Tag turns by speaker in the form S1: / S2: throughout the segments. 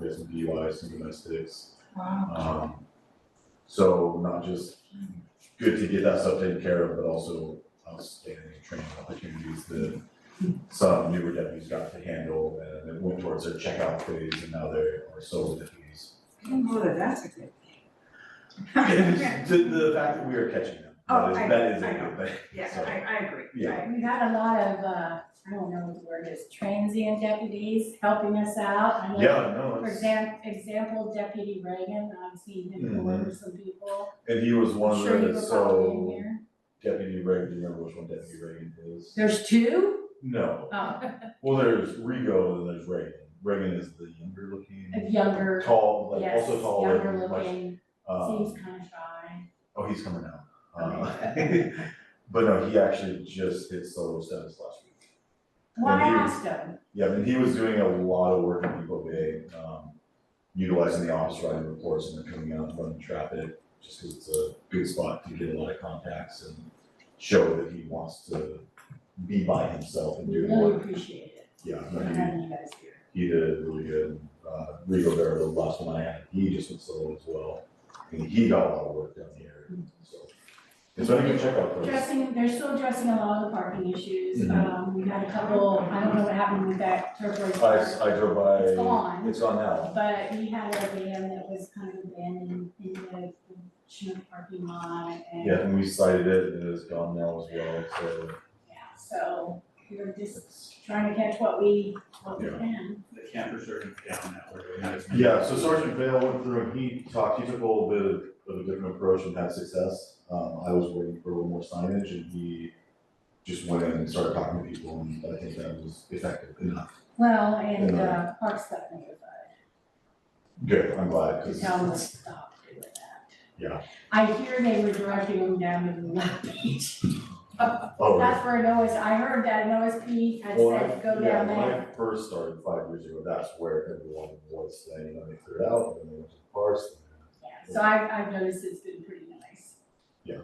S1: there's some DUIs, some domestics.
S2: Wow.
S1: Um, so not just good to get that stuff taken care of, but also outstanding training opportunities that some newer deputies got to handle and it went towards their checkout phase and now they are solo deputies.
S2: I don't know that that's a good thing.
S1: It's The, the fact that we are catching them, that
S2: Oh,
S1: is,
S2: I-
S1: that is a
S2: I know.
S1: good thing.
S2: Yes,
S1: So,
S2: I, I agree.
S1: yeah.
S3: We've had a lot of, uh, I don't know what the word is, transient deputies helping us out. I know,
S1: Yeah, no,
S3: For
S1: it's,
S3: example, example Deputy Reagan, I've seen him deliver some people.
S1: and he was Mm-hmm. one
S3: I'm
S1: of
S3: sure you
S1: the,
S3: were probably in
S1: so
S3: here.
S1: Deputy Reagan, do you remember which one Deputy Reagan is?
S3: There's two?
S1: No,
S3: Oh,
S1: well, there's Rego and there's Reagan, Reagan is the younger looking.
S3: a younger,
S1: tall, like
S3: yes,
S1: also tall,
S3: younger
S1: like, much,
S3: looking,
S1: um,
S3: seems kind of shy.
S1: oh, he's coming now. Uh, But no, he actually just hit solo status last week.
S3: Well, I
S1: and he-
S3: asked him,
S1: Yeah, and he was doing a lot of work in Depot Bay, um, utilizing the office riding reports and then coming out and running traffic, just because it's a good spot to get a lot of contacts and show that he wants to be by himself and
S3: we
S1: do
S3: really
S1: work.
S3: appreciate it,
S1: Yeah,
S3: for
S1: no, he,
S3: having you guys here.
S1: he did really good. Uh, Rigo Vera, the last one I had, he just went solo as well, and he got a lot of work down here, so. It's been a good checkup for us.
S3: Dressing, they're still dressing a lot of the parking issues,
S1: Mhm.
S3: um, we had a couple, I don't know what happened with that turquoise
S1: I,
S3: car,
S1: s- I drove
S3: it's
S1: by,
S3: gone.
S1: it's on now.
S3: But we had a van that was kind of abandoned in the Chinook parking lot and,
S1: Yeah,
S3: yeah,
S1: and we cited it, and it's gone now as well, so
S3: so we were just
S1: it's.
S3: trying to catch what we, what we
S1: Yeah.
S3: can.
S4: The campers are down that way, not as many.
S1: Yeah, so Sergeant Vale went through and he talked, he took a little bit of, of a different approach and had success. Um, I was waiting for a little more signage and he just went in and started talking to people and I think that was effective enough.
S3: Well, and, uh,
S1: Yeah.
S3: Parks got notified
S1: Good, I'm glad, cause
S3: to tell them to stop doing that.
S1: Yeah.
S3: I hear they were directing them down to the left beach,
S1: Oh, yeah.
S3: that's where an OS, I heard that an OSP had
S1: Well, Oh, I-
S3: said, go
S1: yeah,
S3: down there.
S1: When I first started five years ago, that's where everyone was saying, and they cleared out, and then they went to the parks. and then-
S3: Yeah, so I've, I've noticed it's been pretty nice.
S1: Yeah.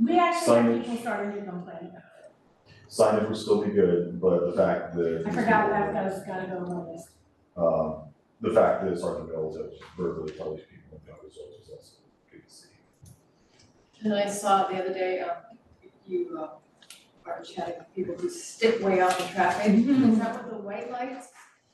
S3: We actually have
S1: Signage.
S3: people starting to complain about it.
S1: Signage would still be good, but the fact that.
S3: I forgot that, that was gotta go on this.
S1: Um, the fact that Sergeant Bell was able to verbally tell these people about results was also good to see.
S5: And I saw it the other day, um, you uh, are chatting with people who stick way out in traffic. Is that with the white lights?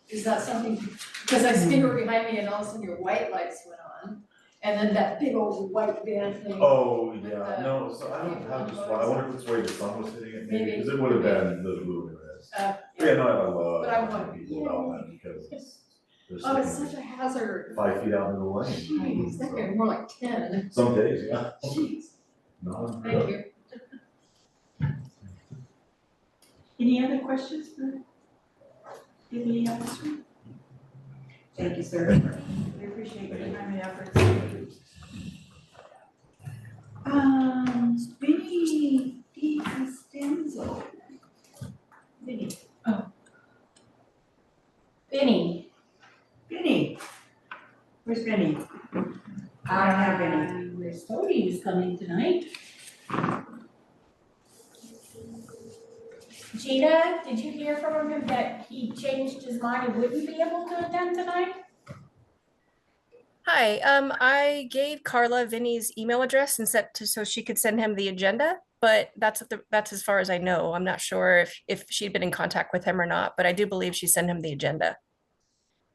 S5: Is that something, because I see her behind me and all of a sudden your white lights went on. And then that big old white van thing.
S1: Oh,
S5: With
S1: yeah,
S5: the-
S1: no, so I don't have this one, I wonder if it's where the sun was hitting it maybe,
S5: Maybe.
S1: because it would have been the blue and red.
S5: Uh,
S1: Yeah, no, I love
S5: But I want-
S1: talking to people about that because they're
S5: Oh, it's
S1: sitting
S5: such a hazard.
S1: five feet out into the lane.
S5: Jeez, that could be more like ten.
S1: so. Some days, yeah,
S5: Jeez,
S1: no,
S5: thank you.
S2: Any other questions for any officer? Thank you, sir. We appreciate your time and effort. Um, Vinnie DiCostanzo. Vinnie,
S3: Benny.
S2: Vinnie. Where's Vinnie? I don't have any.
S3: Uh, Where's Cody is coming tonight? Gina, did you hear from him that he changed his mind and wouldn't be able to attend tonight?
S6: Hi, um, I gave Carla Vinny's email address and sent to, so she could send him the agenda, but that's, at the that's as far as I know. I'm not sure if, if she'd been in contact with him or not, but I do believe she sent him the agenda.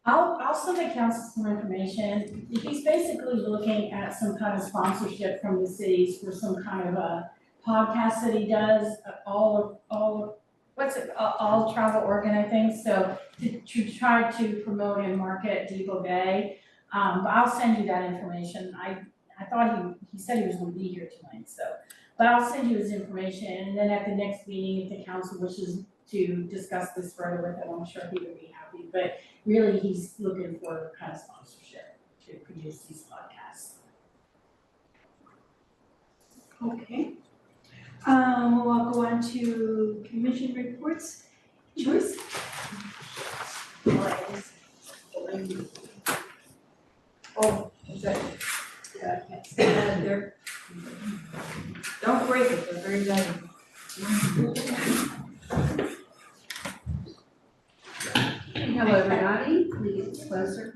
S3: I'll, I'll send the council some information. He's basically looking at some kind of sponsorship from the cities for some kind of a podcast that he does, uh, all of, all, of- what's it, all, all travel organ, I think, so to, to try to promote and market Depot Bay. Um, but I'll send you that information. I, I thought he, he said he was gonna be here tonight, so. But I'll send you his information, and then at the next meeting, if the council wishes to discuss this further with him, I'm sure he would be happy. But really he's looking for kind of sponsorship to produce these podcasts.
S2: Okay. Um, we'll go on to commission reports. Joyce?
S5: Oh, is that, yeah, I can't see that there. Don't break it, they're very valuable.
S7: Hello, everybody, please close your